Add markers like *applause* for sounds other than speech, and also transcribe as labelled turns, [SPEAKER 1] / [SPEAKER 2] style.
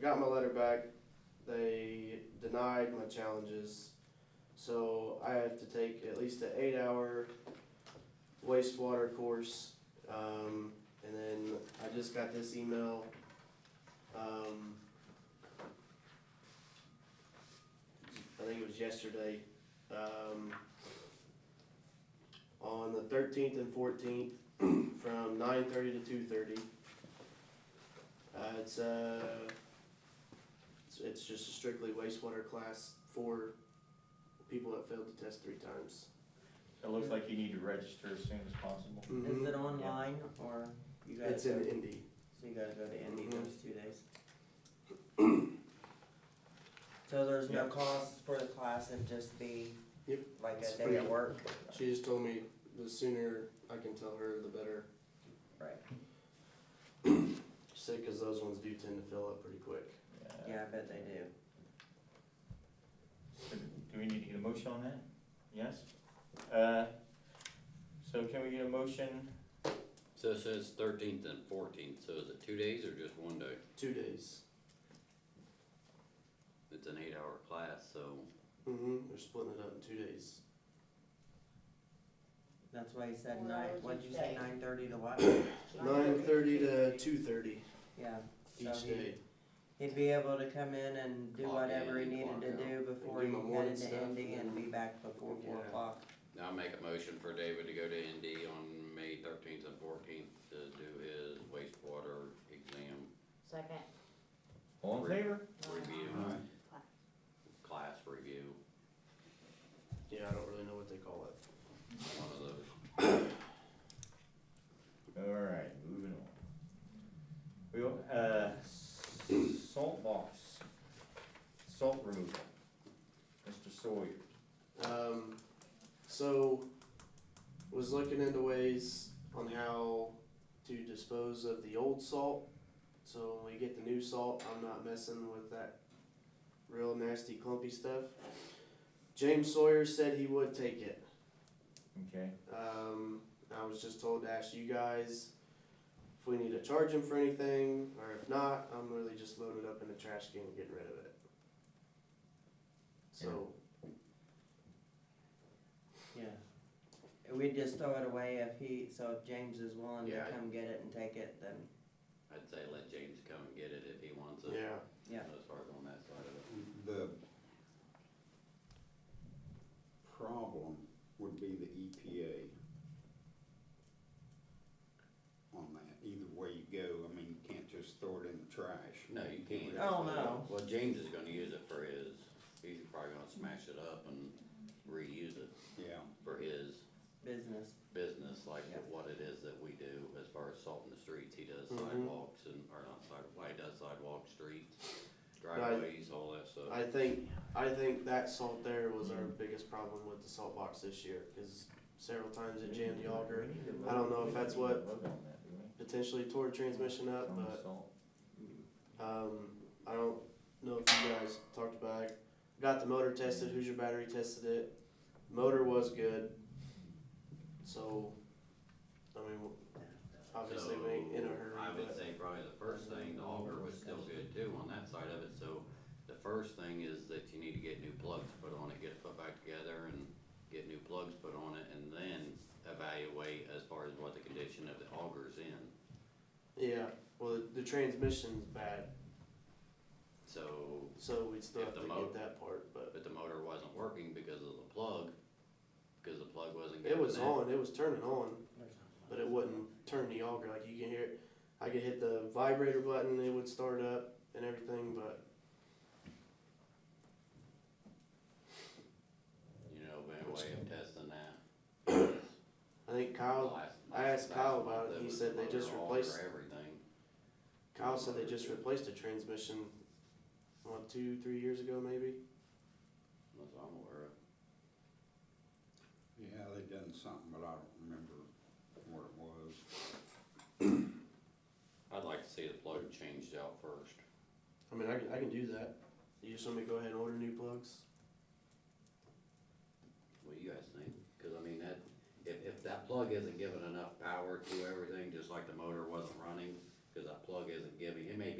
[SPEAKER 1] got my letter back. They denied my challenges. So I have to take at least an eight hour wastewater course. Um, and then I just got this email. Um, I think it was yesterday. Um, on the thirteenth and fourteenth *clears throat* from nine thirty to two thirty. Uh, it's uh, it's, it's just a strictly wastewater class for people that failed to test three times.
[SPEAKER 2] It looks like you need to register as soon as possible.
[SPEAKER 3] Is it online or you guys,
[SPEAKER 1] Mm-hmm. It's
[SPEAKER 3] go-
[SPEAKER 1] in Indy.
[SPEAKER 3] so you gotta go to Indy
[SPEAKER 1] Mhm.
[SPEAKER 3] those two
[SPEAKER 1] *clears throat*
[SPEAKER 3] days? So there's no cost for the class, it'd just be
[SPEAKER 1] Yep.
[SPEAKER 3] like
[SPEAKER 1] It's
[SPEAKER 3] a day
[SPEAKER 1] free.
[SPEAKER 3] at work?
[SPEAKER 1] She just told me the sooner I can tell her, the better.
[SPEAKER 3] Right,
[SPEAKER 1] She said because those ones do tend to fill up pretty quick.
[SPEAKER 3] yeah, I bet they do.
[SPEAKER 2] Do we need to get a motion on that? Yes? Uh, So can we get a motion?
[SPEAKER 4] So it says thirteenth and fourteenth, so is it two days or just one day?
[SPEAKER 1] Two days.
[SPEAKER 4] It's an eight hour class, so
[SPEAKER 1] Mm-hmm. They're splitting it up in two days.
[SPEAKER 3] That's why he said
[SPEAKER 5] Well,
[SPEAKER 3] nine,
[SPEAKER 5] it was
[SPEAKER 3] what'd you
[SPEAKER 5] each
[SPEAKER 3] say,
[SPEAKER 5] day.
[SPEAKER 3] nine thirty
[SPEAKER 1] *clears throat*
[SPEAKER 3] to what?
[SPEAKER 1] Nine thirty to two thirty
[SPEAKER 3] Yeah, so
[SPEAKER 1] each
[SPEAKER 3] he,
[SPEAKER 1] day.
[SPEAKER 3] he'd be able to come in and do
[SPEAKER 4] Clock
[SPEAKER 3] whatever he
[SPEAKER 4] in,
[SPEAKER 3] needed
[SPEAKER 4] clock
[SPEAKER 3] to
[SPEAKER 4] out.
[SPEAKER 3] do before
[SPEAKER 1] do
[SPEAKER 3] he
[SPEAKER 1] my morning
[SPEAKER 3] headed
[SPEAKER 1] stuff
[SPEAKER 3] to Indy
[SPEAKER 1] and-
[SPEAKER 3] and be back before four
[SPEAKER 1] Yeah.
[SPEAKER 3] o'clock.
[SPEAKER 4] I'll make a motion for David to go to ND on May thirteenth and fourteenth to do his wastewater exam
[SPEAKER 5] Second.
[SPEAKER 2] All in favor?
[SPEAKER 4] review.
[SPEAKER 2] Aye.
[SPEAKER 4] Class review,
[SPEAKER 1] Yeah, I don't really know what they call it.
[SPEAKER 4] one of those.
[SPEAKER 2] Alright, moving on. We, will- uh, salt box, salt removal, Mr. Sawyer.
[SPEAKER 1] Um, so, was looking into ways on how to dispose of the old salt. So when we get the new salt, I'm not messing with that real nasty clumpy stuff. James Sawyer said he would take it.
[SPEAKER 2] Okay,
[SPEAKER 1] Um, I was just told to ask you guys if we need to charge him for anything, or if not, I'm really just loading it up in the trash can and getting rid of it. So,
[SPEAKER 3] Yeah. We'd just throw it away if he, so if James is willing to
[SPEAKER 1] Yeah, I-
[SPEAKER 3] come get it and take it, then,
[SPEAKER 4] I'd say let James come and get it if he wants it.
[SPEAKER 1] yeah.
[SPEAKER 3] yeah.
[SPEAKER 4] As far as on that side of it.
[SPEAKER 6] The problem would be the E EPA on that. Either way you go, I mean, you can't just throw it in the trash.
[SPEAKER 4] No, you can't.
[SPEAKER 3] Oh, no.
[SPEAKER 4] Well, James is gonna use it for his, he's probably gonna smash it up and reuse it
[SPEAKER 6] Yeah,
[SPEAKER 4] for his
[SPEAKER 3] Business,
[SPEAKER 4] business, like
[SPEAKER 3] Yeah.
[SPEAKER 4] what it is that we do as far as salt in the streets, he does
[SPEAKER 1] Mhm.
[SPEAKER 4] sidewalks and, or not sidewalks, well, he does sidewalks, streets, driveways, all that stuff.
[SPEAKER 1] I think, I think that salt there was our biggest problem with the salt box this year, cause several times it jammed the auger, I don't know if that's what- uh, potentially tore the transmission up, but, um, I don't know if you guys talked about it. Got the motor tested, Hoosier Battery tested it, motor was good, so, I mean, obviously we ain't in a hurry,
[SPEAKER 4] So, I would
[SPEAKER 1] but,
[SPEAKER 4] say probably the first thing, the auger was still good too on that side of it, so the first thing is that you need to get new plugs put on it, get it put back together and get new plugs put on it and then evaluate as far as what the condition of the auger's in.
[SPEAKER 1] yeah, well, the, the transmission's bad,
[SPEAKER 4] So
[SPEAKER 1] so we'd still
[SPEAKER 4] If
[SPEAKER 1] have to
[SPEAKER 4] the mo-
[SPEAKER 1] get that part, but.
[SPEAKER 4] but the motor wasn't working because of the plug, because the plug wasn't
[SPEAKER 1] It
[SPEAKER 4] getting
[SPEAKER 1] was
[SPEAKER 4] in.
[SPEAKER 1] on, it was turning on, but it wouldn't turn the auger, like you can hear it. I could hit the vibrator button, it would start up and everything, but
[SPEAKER 4] You know, been a way of testing that.
[SPEAKER 1] I think *coughs* Kyle,
[SPEAKER 4] Last-
[SPEAKER 1] I asked
[SPEAKER 4] last
[SPEAKER 1] Kyle
[SPEAKER 4] month,
[SPEAKER 1] about it,
[SPEAKER 4] that
[SPEAKER 1] he
[SPEAKER 4] was
[SPEAKER 1] said
[SPEAKER 4] the
[SPEAKER 1] they
[SPEAKER 4] motor,
[SPEAKER 1] just
[SPEAKER 4] auger,
[SPEAKER 1] replaced-
[SPEAKER 4] Everything.
[SPEAKER 1] Kyle said they just replaced the transmission, what, two, three years ago maybe?
[SPEAKER 4] That's what I'm aware of.
[SPEAKER 6] yeah, they done something, but I don't remember what it was.
[SPEAKER 4] I'd like to see the plug changed out first.
[SPEAKER 1] I mean, I can, I can do that. You just want me to go ahead and order new plugs?
[SPEAKER 4] What do you guys think? Cause I mean, that, if, if that plug isn't giving enough power to everything, just like the motor wasn't running, cause that plug isn't giving, it may